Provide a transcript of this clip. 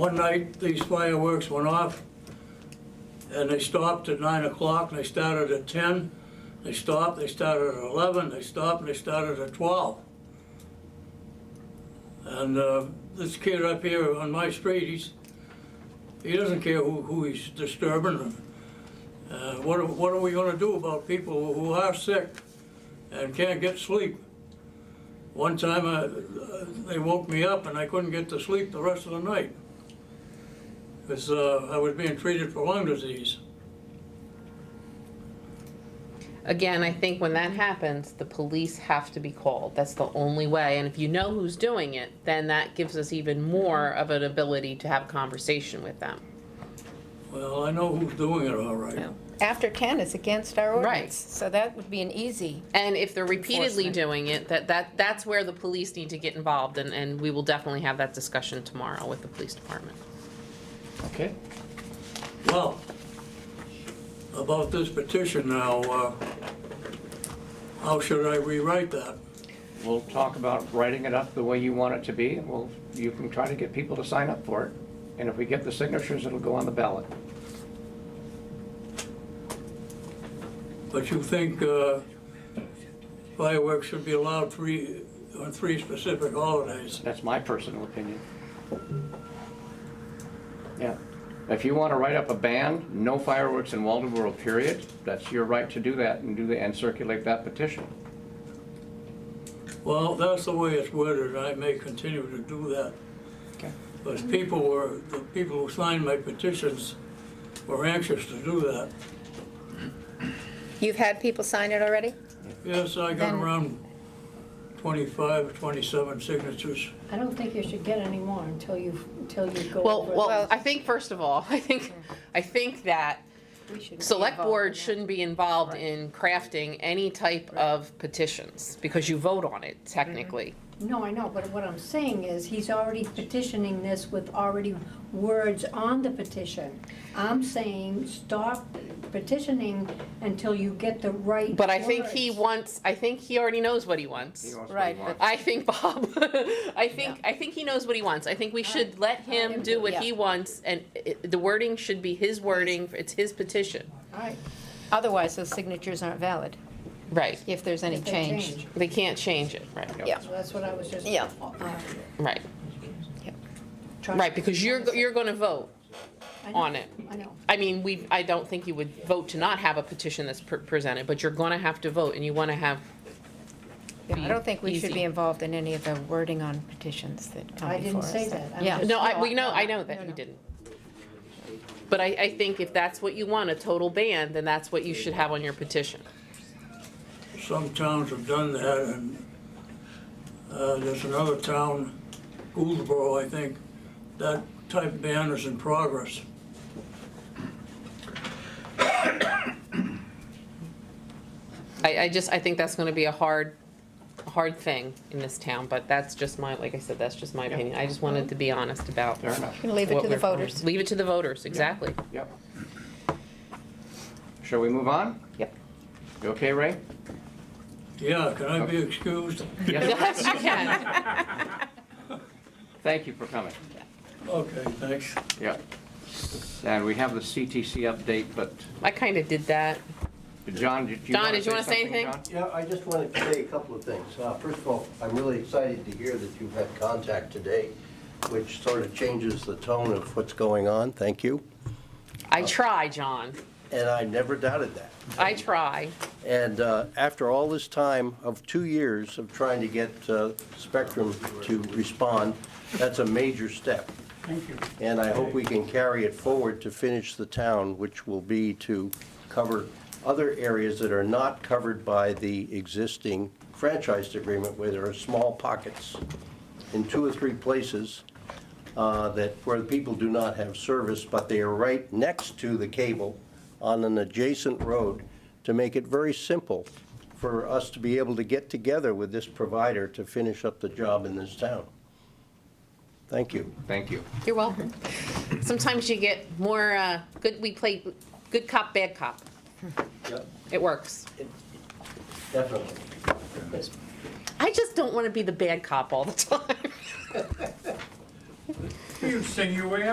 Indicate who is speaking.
Speaker 1: One night, these fireworks went off, and they stopped at nine o'clock, and they started at ten. They stopped, they started at eleven, they stopped, and they started at twelve. And uh, this kid up here on my street, he's, he doesn't care who, who he's disturbing. Uh, What are, what are we gonna do about people who are sick and can't get sleep? One time, uh, they woke me up and I couldn't get to sleep the rest of the night. Because uh, I was being treated for lung disease.
Speaker 2: Again, I think when that happens, the police have to be called. That's the only way. And if you know who's doing it, then that gives us even more of an ability to have a conversation with them.
Speaker 1: Well, I know who's doing it all right.
Speaker 3: After 10, it's against our
Speaker 2: Right.
Speaker 3: ordinance. So that would be an easy,
Speaker 2: And if they're repeatedly
Speaker 3: Enforcement.
Speaker 2: doing it, that, that, that's where the police need to get involved and, and we will definitely have that discussion tomorrow with the police department.
Speaker 4: Okay.
Speaker 1: Well, about this petition now, uh, how should I rewrite that?
Speaker 4: We'll talk about writing it up the way you want it to be. Well, you can try to get people to sign up for it. And if we get the signatures, it'll go on the ballot.
Speaker 1: But you think uh, fireworks should be allowed three, on three specific holidays?
Speaker 4: That's my personal opinion. Yeah. If you want to write up a ban, no fireworks in Waldeboro, period, that's your right to do that and do the, and circulate that petition.
Speaker 1: Well, that's the way it's worded, I may continue to do that.
Speaker 4: Okay.
Speaker 1: Because people were, the people who signed my petitions were anxious to do that.
Speaker 3: you've had people sign it already?
Speaker 1: Yes, I got
Speaker 3: Then-
Speaker 1: around 25, 27 signatures.
Speaker 5: I don't think you should get any more until you, until you go
Speaker 2: Well,
Speaker 5: over.
Speaker 2: well, I think first of all, I think, I think that
Speaker 5: We should be
Speaker 2: select
Speaker 5: involved in
Speaker 2: board
Speaker 5: that.
Speaker 2: shouldn't be involved in crafting any type of petitions because you vote on it technically.
Speaker 5: No, I know, but what I'm saying is, he's already petitioning this with already words on the petition. I'm saying, stop petitioning until you get the right
Speaker 2: But I think he
Speaker 5: words.
Speaker 2: wants, I think he already knows what he
Speaker 4: He
Speaker 2: wants.
Speaker 4: wants what he
Speaker 3: Right,
Speaker 4: wants.
Speaker 2: I think Bob, I think, I think he knows what he wants. I think we should let him do what
Speaker 3: Yeah.
Speaker 2: he wants and it- the wording should be his wording, it's his petition.
Speaker 5: All right,
Speaker 3: Otherwise, those signatures aren't valid
Speaker 2: Right.
Speaker 3: if there's any
Speaker 5: if they
Speaker 3: change.
Speaker 5: change.
Speaker 2: They can't change it, right,
Speaker 4: Yeah.
Speaker 3: Yeah,
Speaker 5: So that's what I was just.
Speaker 3: Yeah.
Speaker 5: uh,
Speaker 2: right,
Speaker 5: trying to-
Speaker 2: right, because you're, go- you're gonna vote
Speaker 5: I know,
Speaker 2: on it.
Speaker 5: I know.
Speaker 2: I mean, we, I don't think you would vote to not have a petition that's pre- presented, but you're gonna have to vote and you wanna have
Speaker 3: Yeah, I don't think we should
Speaker 2: Easy.
Speaker 3: be involved in any of the wording on petitions that come
Speaker 5: I
Speaker 3: before
Speaker 5: didn't
Speaker 3: us.
Speaker 5: say that. I'm
Speaker 3: Yeah.
Speaker 5: just-
Speaker 2: No, I, we know, I know
Speaker 3: No,
Speaker 2: that you
Speaker 3: no.
Speaker 2: didn't. But I, I think if that's what you want, a total ban, then that's what you should have on your petition.
Speaker 1: Some towns have done that, and uh, there's another town, Gouldsboro, I think, that type ban is in progress.
Speaker 2: I, I just, I think that's gonna be a hard, hard thing in this town, but that's just my, like I said, that's just my opinion. I just wanted to be honest about.
Speaker 4: Fair enough.
Speaker 3: You can leave it
Speaker 2: what
Speaker 3: to the
Speaker 2: we're-
Speaker 3: voters.
Speaker 2: Leave it to the voters, exactly.
Speaker 4: Yep. Shall we move on?
Speaker 2: Yep.
Speaker 4: You okay, Ray?
Speaker 1: Yeah, can I be excused?
Speaker 4: Yes.
Speaker 2: Yes, you can.
Speaker 4: Thank you for coming.
Speaker 1: Okay, thanks.
Speaker 4: Yep. And we have the CTC update, but
Speaker 2: I kinda did that.
Speaker 4: John, did you
Speaker 2: Don,
Speaker 4: want to
Speaker 2: did you wanna say anything?
Speaker 6: Yeah, I just wanted to say a couple of things. Uh, First of all, I'm really excited to hear that you've had contact today, which sort of changes the tone of what's going on. Thank you.
Speaker 4: Uh,
Speaker 2: I try, John.
Speaker 6: And I never doubted that.
Speaker 2: I try.
Speaker 6: And uh, after all this time of two years of trying to get uh, Spectrum to respond, that's a major step.
Speaker 1: Thank you.
Speaker 6: And I hope we can carry it forward to finish the town, which will be to cover other areas that are not covered by the existing franchise agreement, where there are small pockets in two or three places uh, that, where the people do not have service, but they are right next to the cable on an adjacent road, to make it very simple for us to be able to get together with this provider to finish up the job in this town. Thank you.
Speaker 4: Thank you.
Speaker 2: You're welcome. Sometimes you get more, uh, good, we play good cop, bad cop. It works.
Speaker 6: Definitely.
Speaker 2: I just don't want to be the bad cop all the time.
Speaker 7: You sing your way